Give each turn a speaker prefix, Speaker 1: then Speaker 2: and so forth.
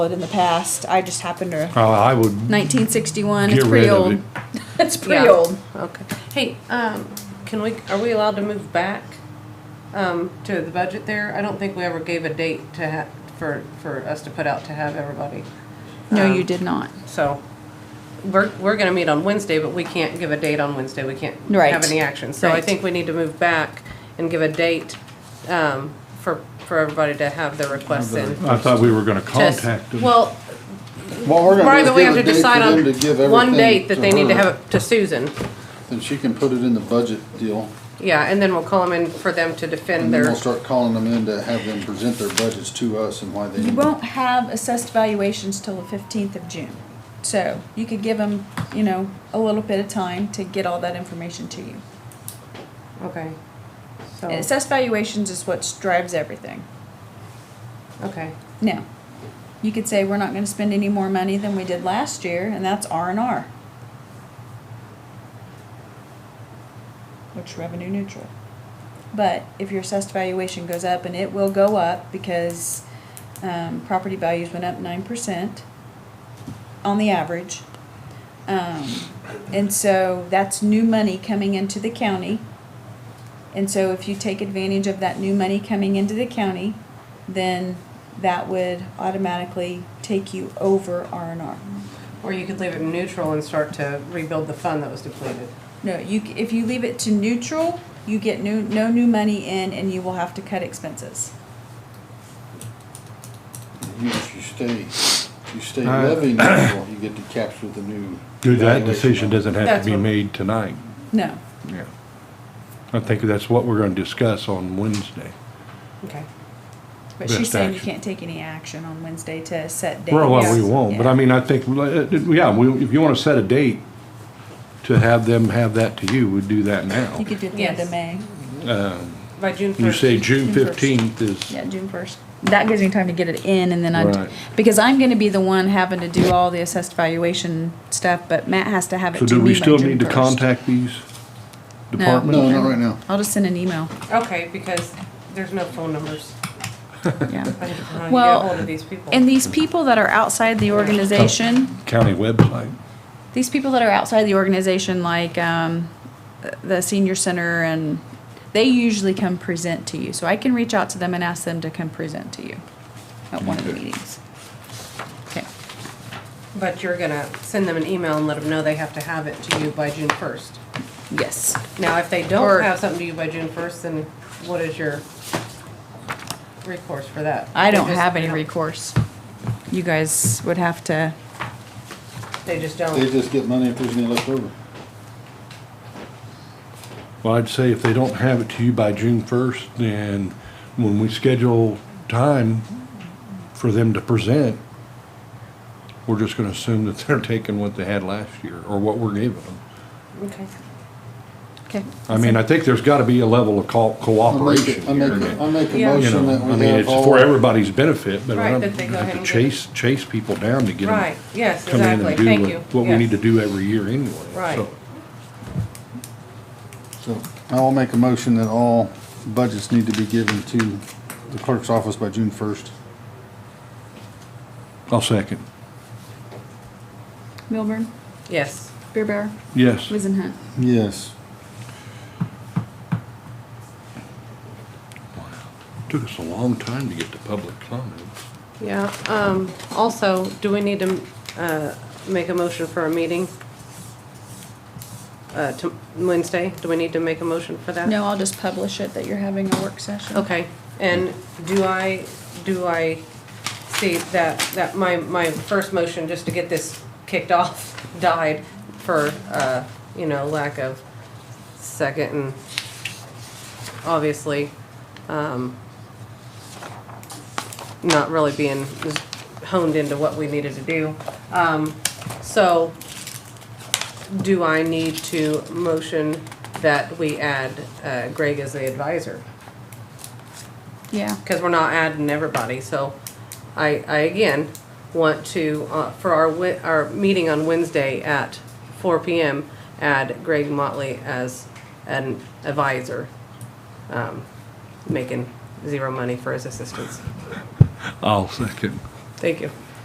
Speaker 1: it in the past. I just happened to.
Speaker 2: Uh, I would
Speaker 1: 1961.
Speaker 2: get
Speaker 1: it's pretty
Speaker 2: rid of
Speaker 1: old.
Speaker 2: it.
Speaker 1: It's pretty
Speaker 3: Yeah.
Speaker 1: old.
Speaker 3: Okay. Hey, um, can we, are we allowed to move back, um, to the budget there? I don't think we ever gave a date to ha, for, for us to put out to have everybody.
Speaker 4: No,
Speaker 3: Um,
Speaker 4: you did not.
Speaker 3: So, we're, we're gonna meet on Wednesday, but we can't give a date on Wednesday. We can't
Speaker 1: Right.
Speaker 3: have any action. So I
Speaker 1: Right.
Speaker 3: think we need to move back and give a date, um, for, for everybody to have their requests in.
Speaker 2: I thought we were gonna
Speaker 3: Just-
Speaker 2: contact them.
Speaker 3: Well,
Speaker 5: What we're
Speaker 3: part
Speaker 5: gonna
Speaker 3: of
Speaker 5: do
Speaker 3: it, we have
Speaker 5: is
Speaker 3: to
Speaker 5: give a date
Speaker 3: decide
Speaker 5: for them to give
Speaker 3: on one
Speaker 5: everything
Speaker 3: date that they need to
Speaker 5: her,
Speaker 3: have it to Susan.
Speaker 5: Then she can put it in the budget deal,
Speaker 3: Yeah, and then we'll call them in for them to defend
Speaker 5: and then
Speaker 3: their.
Speaker 5: we'll start calling them in to have them present their budgets to us and why they.
Speaker 1: You won't have assessed valuations till the 15th of June. So you could give them, you know, a little bit of time to get all that information to you.
Speaker 3: Okay.
Speaker 4: Oh.
Speaker 1: And
Speaker 3: So,
Speaker 1: assessed valuations is what drives everything.
Speaker 3: okay,
Speaker 1: Now, you could say we're not going to spend any more money than we did last year, and that's R and R, which revenue neutral. But if your assessed valuation goes up, and it will go up because um, property values went up nine percent on the average, um, and so that's new money coming into the county. And so if you take advantage of that new money coming into the county, then that would automatically take you over R and R.
Speaker 3: or you could leave it neutral and start to rebuild the fund that was depleted.
Speaker 1: No, you, c- if you leave it to neutral, you get new, no new money in and you will have to cut expenses.
Speaker 5: You, you stay, you stay
Speaker 2: Uh,
Speaker 5: levy neutral, you get to capture the new.
Speaker 2: Dude, that decision
Speaker 5: valuation on it.
Speaker 2: doesn't have
Speaker 3: That's
Speaker 2: to be
Speaker 3: what-
Speaker 2: made tonight.
Speaker 1: No,
Speaker 2: Yeah. I think that's what we're gonna discuss on Wednesday.
Speaker 3: Okay.
Speaker 1: but
Speaker 2: Best
Speaker 1: she's saying you
Speaker 2: action.
Speaker 1: can't take any action on Wednesday to set dates.
Speaker 2: Well, well, we
Speaker 1: Yeah.
Speaker 2: won't, but I mean, I think, uh, yeah, we, if you wanna set a date to have them have that to you, we'd do that now.
Speaker 1: You could do it the end of
Speaker 3: Yes.
Speaker 1: May,
Speaker 3: By June first.
Speaker 2: You say June
Speaker 1: June first.
Speaker 2: fifteenth is,
Speaker 1: yeah, June first. That gives me time to get it in and then I,
Speaker 2: Right.
Speaker 1: because I'm gonna be the one having to do all the assessed valuation stuff, but Matt has to have it
Speaker 2: so
Speaker 1: to me
Speaker 2: do we
Speaker 1: by
Speaker 2: still
Speaker 1: June
Speaker 2: need to
Speaker 1: 1st.
Speaker 2: contact these departments?
Speaker 5: No, not right now.
Speaker 1: I'll just send an email,
Speaker 3: Okay, because there's no phone numbers.
Speaker 1: yeah.
Speaker 3: I don't know how you
Speaker 1: Well,
Speaker 3: get ahold of these people.
Speaker 1: And these people that are outside the organization,
Speaker 2: County website.
Speaker 1: these people that are outside the organization, like um, the senior center, and they usually come present to you. So I can reach out to them and ask them to come present to you at one of the
Speaker 2: Okay.
Speaker 1: meetings. Okay.
Speaker 3: But you're gonna send them an email and let them know they have to have it to you by June first.
Speaker 1: Yes.
Speaker 3: Now, if they
Speaker 1: Or-
Speaker 3: don't have something to you by June first, then what is your recourse for that?
Speaker 1: I
Speaker 3: They
Speaker 1: don't
Speaker 3: just-
Speaker 1: have
Speaker 3: they
Speaker 1: any
Speaker 3: don't-
Speaker 1: recourse. You guys would have to.
Speaker 3: They just
Speaker 5: They
Speaker 3: don't.
Speaker 5: just get money if there's any left over.
Speaker 2: Well, I'd say if they don't have it to you by June first, then when we schedule time for them to present, we're just gonna assume that they're taking what they had last year or what we're giving them.
Speaker 3: Okay.
Speaker 1: Okay.
Speaker 2: I mean, I think there's gotta be a level of co-
Speaker 5: I make,
Speaker 2: cooperation
Speaker 5: it- I
Speaker 2: here.
Speaker 5: make, it- I make a
Speaker 3: Yeah.
Speaker 2: You
Speaker 5: motion that
Speaker 2: know, I
Speaker 5: we
Speaker 2: mean,
Speaker 5: have
Speaker 2: it's for
Speaker 5: all,
Speaker 2: everybody's benefit, but
Speaker 3: Right,
Speaker 2: I
Speaker 3: that they go ahead
Speaker 2: don't
Speaker 3: and
Speaker 2: chase, chase people down to get them.
Speaker 3: Right, yes,
Speaker 2: Come in
Speaker 3: exactly,
Speaker 2: and do
Speaker 3: thank you.
Speaker 2: what- what we
Speaker 3: Yes.
Speaker 2: need to do every year anyway.
Speaker 3: Right.
Speaker 2: so.
Speaker 5: so I'll make a motion that all budgets need to be given to the clerk's office by June first.
Speaker 2: I'll second.
Speaker 1: Milburn,
Speaker 3: Yes.
Speaker 1: Beer Bear,
Speaker 2: Yes.
Speaker 1: Wizenhunt.
Speaker 5: Yes.
Speaker 2: Took us a long time to get to public comments.
Speaker 3: Yeah, um, also, do we need to, uh, make a motion for a meeting? Uh, to Wednesday, do we need to make a motion for that?
Speaker 1: No, I'll just publish it that you're having a work session.
Speaker 3: Okay, and do I, do I see that, that my, my first motion, just to get this kicked off, died for, uh, you know, lack of second and obviously, um, not really being honed into what we needed to do. Um, so do I need to motion that we add, uh, Greg as the advisor?
Speaker 1: Yeah.
Speaker 3: because we're not adding everybody, so I, I again want to, uh, for our, Wed- our meeting on Wednesday at four P M, add Greg Motley as an advisor, um, making zero money for his assistance.
Speaker 2: I'll second.
Speaker 3: Thank you.